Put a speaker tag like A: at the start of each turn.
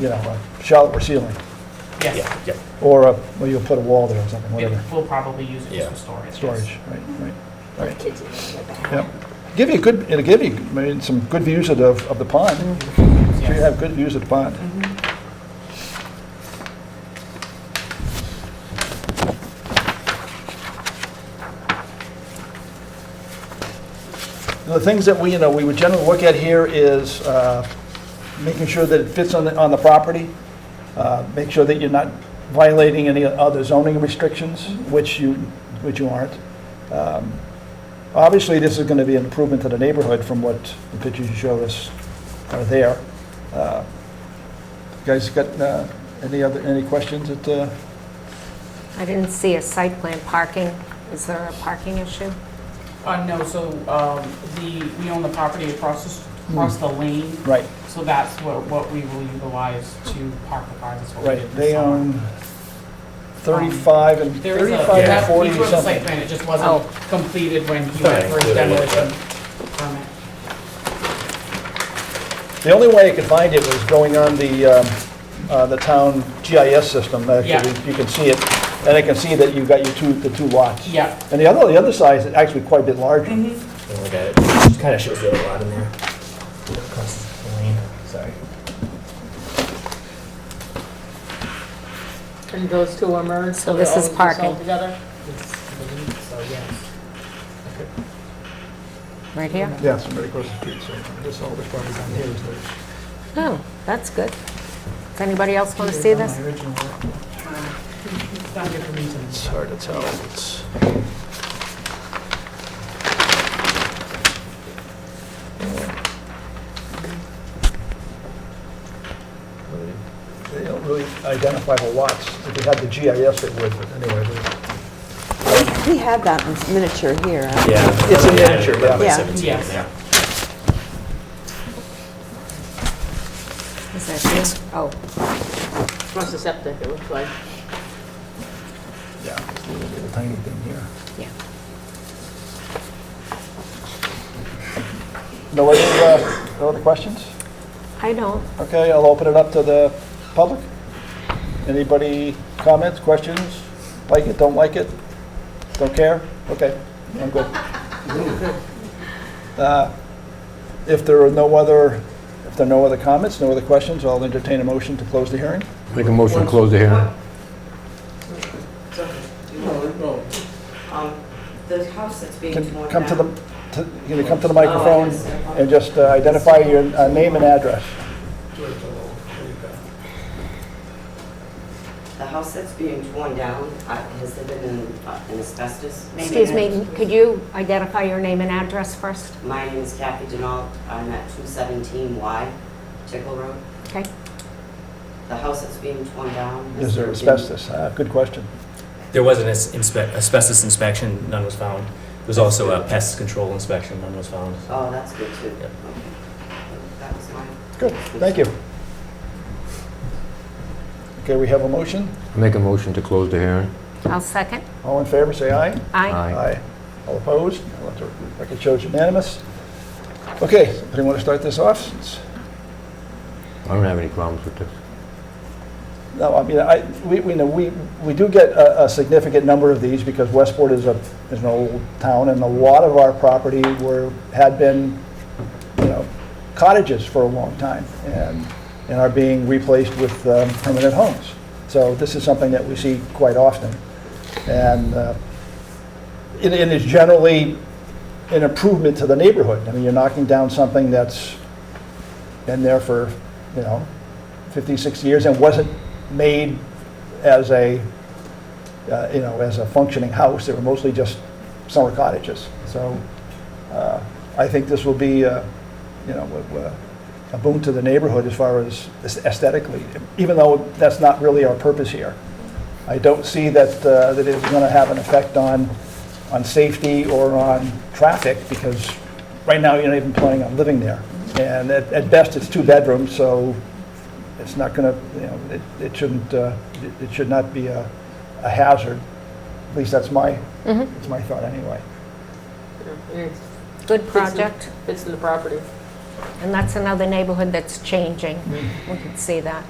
A: you know, a shallot or ceiling,
B: Yeah,
C: Yes,
B: yeah,
A: or, a- well, you'll put a wall there or something, whatever,
C: It- we'll probably use it
B: Yeah.
C: just for storage. yes.
A: storage, right, right, right.
D: Kids in the back.
A: Yep. Give you good, it'll give you, I mean, some good views of the, of the pond.
D: Mm-hmm.
A: So you
C: Yes.
A: have good views of the pond. The things that we, you know, we would generally look at here is uh, making sure that it fits on the, on the property. Uh, Make sure that you're not violating any other zoning restrictions, which you, which you aren't. Um, Obviously, this is going to be an improvement to the neighborhood from what the pictures you showed us are there. Uh, you Guys got uh, any other, any questions that, uh,
D: I didn't see a site plan parking. Is there a parking issue?
C: Uh, no, so, um, the, we own the property across the, s- across
A: Hmm.
C: the lane,
A: right,
C: so that's what, what we will utilize to park the cars, that's what we
A: right,
C: did this
A: they
C: summer.
A: own 35 and,
C: There is a,
A: 35 and
C: that,
A: 40
C: he
A: or
C: wrote the site
A: something.
C: plan, it just
D: Oh.
C: wasn't completed when he went
B: Right,
C: for his
B: clearly, yeah.
C: demolition permit.
A: The only way I could find it was going on the, um, uh, the town GIS system, actually,
C: Yeah.
A: you can see it, and I can see that you've got your two, the two lots.
C: Yeah.
A: And the other, the other side is actually quite a bit larger.
B: don't look at it. It kind of shows the other lot in there. Across the lane, sorry.
E: And those two are merged?
D: So this
E: they're
D: is
E: all-
D: parking.
E: all together?
C: It's, I believe so yes.
D: Right here?
A: Yes, very close to the street, so this all this property down here is theirs.
D: Oh, that's good. Does anybody else want to see this?
C: It's not good for me to-
A: It's hard to tell. It's, they don't really identify the lots. If they had the GIS, it would, but anyway. they-
F: We have that in miniature here. huh?
B: Yeah.
A: It's a
B: Yeah,
A: miniature,
B: eleven by
F: yeah.
B: Seventeen in
C: Yes.
B: there.
D: Is that here? Oh,
E: Plus the septic, it looks like.
A: Yeah, it's a little bit of tiny thing here.
D: yeah.
A: No other, uh, no other questions?
D: I don't.
A: Okay, I'll open it up to the public. Anybody comments, questions? Like it, don't like it? Don't care? Okay, I'm good. Uh, If there are no other, if there are no other comments, no other questions, I'll entertain a motion to close the hearing.
G: Make a motion to close the hearing.
H: Um, The house that's being torn
A: Can
H: down.
A: Come to the, to- can you come to the microphone and just uh, identify your uh, name and address?
H: The house that's being torn down, uh, has there been an uh, an asbestos?
D: Excuse me, could you identify your name and address first?
H: My name is Kathy Denault. I'm at 217 Y Tickle Road.
D: Okay.
H: The house that's being torn down. has
A: Is there
H: been-
A: asbestos? Uh, Good question.
B: There was an as- inspe- asbestos inspection, none was found. There was also a pest control inspection, none was found.
H: Oh, that's good too.
B: Yep.
H: Okay. That was mine.
A: Good, thank you. Okay, we have a motion.
G: Make a motion to close the hearing.
D: I'll second.
A: All in favor, say aye.
D: Aye.
A: All opposed? I'll let the Record shows unanimous. Okay, anybody want to start this off? It's-
G: I don't have any problems with this.
A: No, I mean, I, we, we know, we, we do get a, a significant number of these because Westport is a, is an old town and a lot of our property were, had been, you know, cottages for a long time and, and are being replaced with um, permanent homes. So this is something that we see quite often. And uh, it, it is generally an improvement to the neighborhood. I mean, you're knocking down something that's been there for, you know, 50, 60 years and wasn't made as a, uh, you know, as a functioning house. They were mostly just summer cottages. So uh, I think this will be, uh, you know, a- a- a boon to the neighborhood as far as aesthetically, even though that's not really our purpose here. I don't see that, uh, that it's going to have an effect on, on safety or on traffic, because right now you're not even planning on living there. And at, at best, it's two bedrooms, so it's not going to, you know, it, it shouldn't, uh, it- it should not be a a hazard. At least that's my,
D: Mm-hmm.
A: that's my thought anyway.
E: Yeah, and it
D: Good project.
E: Fits in the property.
A: Mm.
D: And that's another neighborhood that's changing. We can see that.